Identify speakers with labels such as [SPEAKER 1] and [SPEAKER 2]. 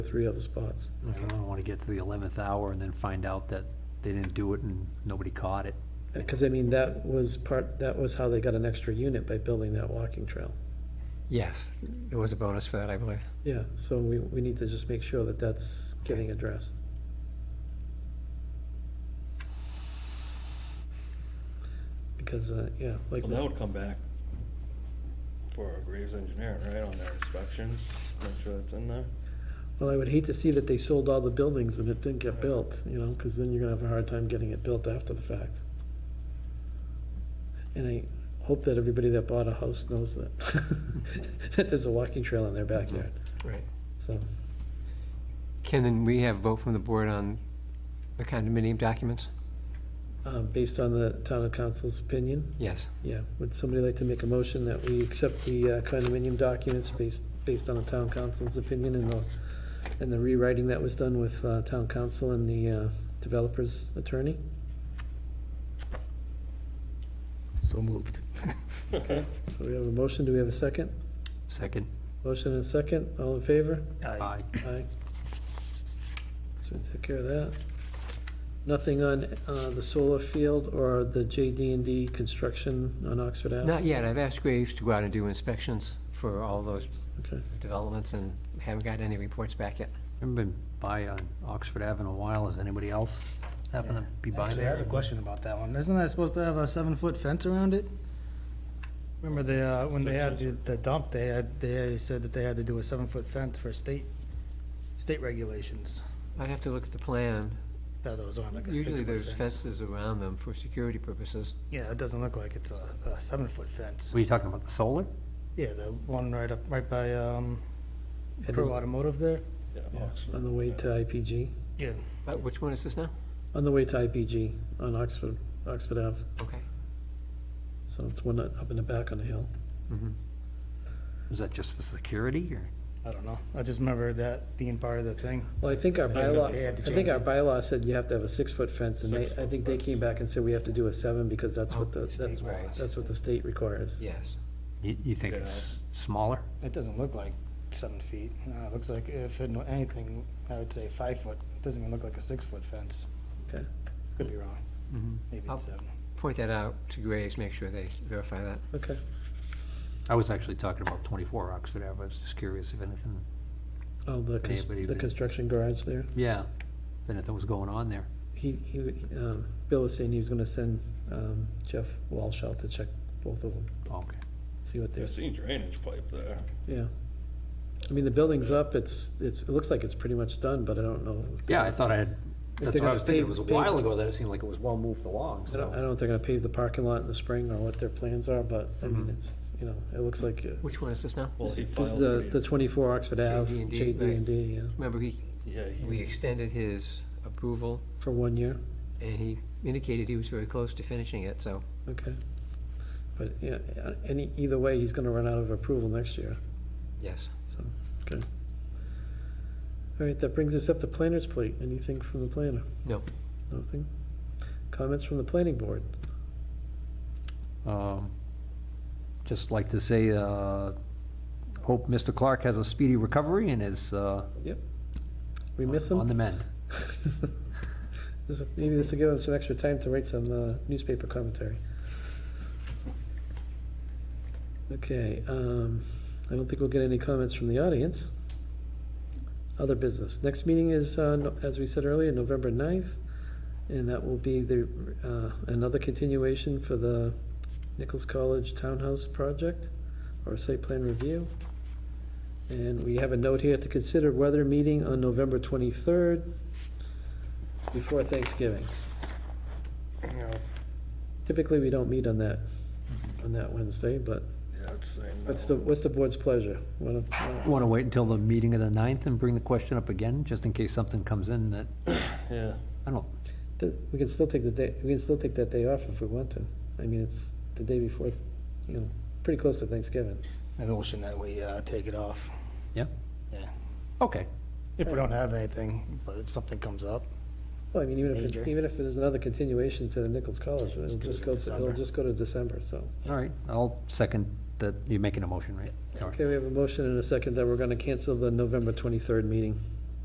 [SPEAKER 1] three other spots.
[SPEAKER 2] I don't want to get to the eleventh hour and then find out that they didn't do it and nobody caught it.
[SPEAKER 1] Because I mean, that was part, that was how they got an extra unit by building that walking trail.
[SPEAKER 3] Yes, there was a bonus for that, I believe.
[SPEAKER 1] Yeah, so we, we need to just make sure that that's getting addressed. Because, uh, yeah, like,
[SPEAKER 4] Well, that would come back for a Graves engineer, right, on their inspections, make sure that's in there.
[SPEAKER 1] well, I would hate to see that they sold all the buildings and it didn't get built, you know, because then you're gonna have a hard time getting it built after the fact. And I hope that everybody that bought a house knows that, that there's a walking trail in their backyard,
[SPEAKER 3] Right.
[SPEAKER 1] so.
[SPEAKER 3] Ken, then we have vote from the board on the condominium documents?
[SPEAKER 1] Um, Based on the town of council's opinion,
[SPEAKER 3] Yes.
[SPEAKER 1] yeah. Would somebody like to make a motion that we accept the uh, condominium documents based, based on the town council's opinion and the, and the rewriting that was done with uh, town council and the uh, developer's attorney?
[SPEAKER 3] So moved.
[SPEAKER 1] So we have a motion, do we have a second?
[SPEAKER 2] Second,
[SPEAKER 1] Motion and a second, all in favor?
[SPEAKER 2] aye.
[SPEAKER 1] Aye. So we take care of that. Nothing on uh, the solar field or the jd and D construction on Oxford Ave?
[SPEAKER 3] Not yet, I've asked Graves to go out and do inspections for all those
[SPEAKER 1] Okay.
[SPEAKER 3] developments and haven't got any reports back yet.
[SPEAKER 2] Haven't been by on Oxford Ave in a while. Has anybody else happen to be by
[SPEAKER 5] Actually, I have a
[SPEAKER 2] there?
[SPEAKER 5] question about that one. Isn't that supposed to have a seven-foot fence around it? Remember they, uh, when they had the- the dump, they had, they said that they had to do a seven-foot fence for state, state regulations.
[SPEAKER 3] I'd have to look at the plan.
[SPEAKER 5] That was on like a
[SPEAKER 3] Usually
[SPEAKER 5] six-foot
[SPEAKER 3] there's
[SPEAKER 5] fence.
[SPEAKER 3] fences around them for security purposes.
[SPEAKER 5] Yeah, it doesn't look like it's a, a seven-foot fence.
[SPEAKER 2] Were you talking about the solar?
[SPEAKER 5] Yeah, the one right up, right by, um,
[SPEAKER 1] And
[SPEAKER 5] Pro
[SPEAKER 1] then-
[SPEAKER 5] Automotive there.
[SPEAKER 4] Yeah,
[SPEAKER 1] Yeah,
[SPEAKER 4] Oxford.
[SPEAKER 1] On the way to IPG,
[SPEAKER 5] Yeah,
[SPEAKER 3] Uh, Which one is this now?
[SPEAKER 1] on the way to IPG on Oxford, Oxford Ave,
[SPEAKER 3] Okay.
[SPEAKER 1] so it's one up in the back on the hill.
[SPEAKER 3] Mhm.
[SPEAKER 2] Is that just for security or?
[SPEAKER 5] I don't know. I just remember that being part of the thing.
[SPEAKER 1] Well, I think our
[SPEAKER 5] think
[SPEAKER 1] bylaw,
[SPEAKER 5] they had to
[SPEAKER 1] I think our
[SPEAKER 5] change it.
[SPEAKER 1] bylaw said you have to have a six-foot fence, and they, I
[SPEAKER 4] Six-foot
[SPEAKER 1] think they
[SPEAKER 4] fence.
[SPEAKER 1] came back and said we have to do a seven, because that's what
[SPEAKER 3] Oh,
[SPEAKER 1] the,
[SPEAKER 3] the state
[SPEAKER 1] that's,
[SPEAKER 3] regs.
[SPEAKER 1] that's what the state requires.
[SPEAKER 3] Yes.
[SPEAKER 2] You, you think it's smaller?
[SPEAKER 5] It doesn't look like seven feet. Uh, it looks like if it, anything, I would say five foot. It doesn't even look like a six-foot fence.
[SPEAKER 1] Okay.
[SPEAKER 5] Could be wrong.
[SPEAKER 3] Mhm.
[SPEAKER 5] Maybe
[SPEAKER 3] Up.
[SPEAKER 5] it's seven.
[SPEAKER 3] Point that out to Graves, make sure they verify that.
[SPEAKER 1] Okay,
[SPEAKER 2] I was actually talking about twenty-four Oxford Ave. I was just curious if anything,
[SPEAKER 1] oh, the, cons-
[SPEAKER 2] Anybody
[SPEAKER 1] the
[SPEAKER 2] may-
[SPEAKER 1] construction garage there,
[SPEAKER 2] yeah, if anything was going on there.
[SPEAKER 1] he, he, um, Bill was saying he was gonna send, um, Jeff Walsh out to check both of them,
[SPEAKER 2] Okay.
[SPEAKER 1] see what they're,
[SPEAKER 4] There's seen drainage pipe there.
[SPEAKER 1] yeah. I mean, the building's up, it's, it's, it looks like it's pretty much done, but I don't know. if they're-
[SPEAKER 2] Yeah, I thought I had, that's what
[SPEAKER 1] gonna
[SPEAKER 2] I was thinking. It
[SPEAKER 1] pave-
[SPEAKER 2] was a
[SPEAKER 1] pave-
[SPEAKER 2] while ago that it seemed like it was well moved along,
[SPEAKER 1] I don't, I
[SPEAKER 2] so.
[SPEAKER 1] don't think they're gonna pave the parking lot in the spring or what their plans are, but, I mean, it's, you know, it looks like, uh,
[SPEAKER 3] Which one is this now?
[SPEAKER 4] Well, he
[SPEAKER 1] this is
[SPEAKER 4] filed
[SPEAKER 1] the,
[SPEAKER 4] for
[SPEAKER 1] the
[SPEAKER 4] you.
[SPEAKER 1] twenty-four Oxford Ave,
[SPEAKER 3] JD&D,
[SPEAKER 1] JD and D, yeah,
[SPEAKER 3] Remember, he
[SPEAKER 4] Yeah, he-
[SPEAKER 3] We extended his approval,
[SPEAKER 1] for one year,
[SPEAKER 3] and he indicated he was very close to finishing it, so,
[SPEAKER 1] okay? But, yeah, any, either way, he's gonna run out of approval next year,
[SPEAKER 3] yes.
[SPEAKER 1] so, okay. All right, that brings us up to planner's plate, anything from the planner?
[SPEAKER 3] No.
[SPEAKER 1] Nothing? Comments from the planning board?
[SPEAKER 2] Um, Just like to say, uh, hope Mr. Clark has a speedy recovery and is uh,
[SPEAKER 1] Yep. We miss
[SPEAKER 2] on the
[SPEAKER 1] him?
[SPEAKER 2] mend.
[SPEAKER 1] This- Maybe this will give him some extra time to write some uh, newspaper commentary. Okay, um, I don't think we'll get any comments from the audience. Other business. Next meeting is, uh, no- as we said earlier, November 9th, and that will be the, uh, another continuation for the Nichols College Townhouse Project, or site plan review. And we have a note here to consider weather meeting on November 23rd before Thanksgiving.
[SPEAKER 4] Yeah,
[SPEAKER 1] Typically, we don't meet on that, on that Wednesday, but
[SPEAKER 4] yeah, I'd say no.
[SPEAKER 1] what's the, what's the board's pleasure? Wanna- wanna-
[SPEAKER 2] Want to wait until the meeting of the 9th and bring the question up again, just in case something comes in that,
[SPEAKER 4] Yeah,
[SPEAKER 2] I don't,
[SPEAKER 1] th- We can still take the day, we can still take that day off if we want to. I mean, it's the day before, you know, pretty close to Thanksgiving.
[SPEAKER 5] A motion that we uh, take it off.
[SPEAKER 2] yeah?
[SPEAKER 5] Yeah.
[SPEAKER 2] Okay,
[SPEAKER 5] If we don't have anything, but if something comes up.
[SPEAKER 1] Well, I mean, even if, it-
[SPEAKER 5] Major.
[SPEAKER 1] even if there's another continuation to the Nichols College, it'll
[SPEAKER 5] Just do it
[SPEAKER 1] just
[SPEAKER 5] in
[SPEAKER 1] go, to- it'll
[SPEAKER 5] December.
[SPEAKER 1] just go to December, so.
[SPEAKER 2] all right, I'll second that, you're making a motion, right? All right.
[SPEAKER 1] Okay, we have a motion and a second that we're gonna cancel the November twenty-third meeting.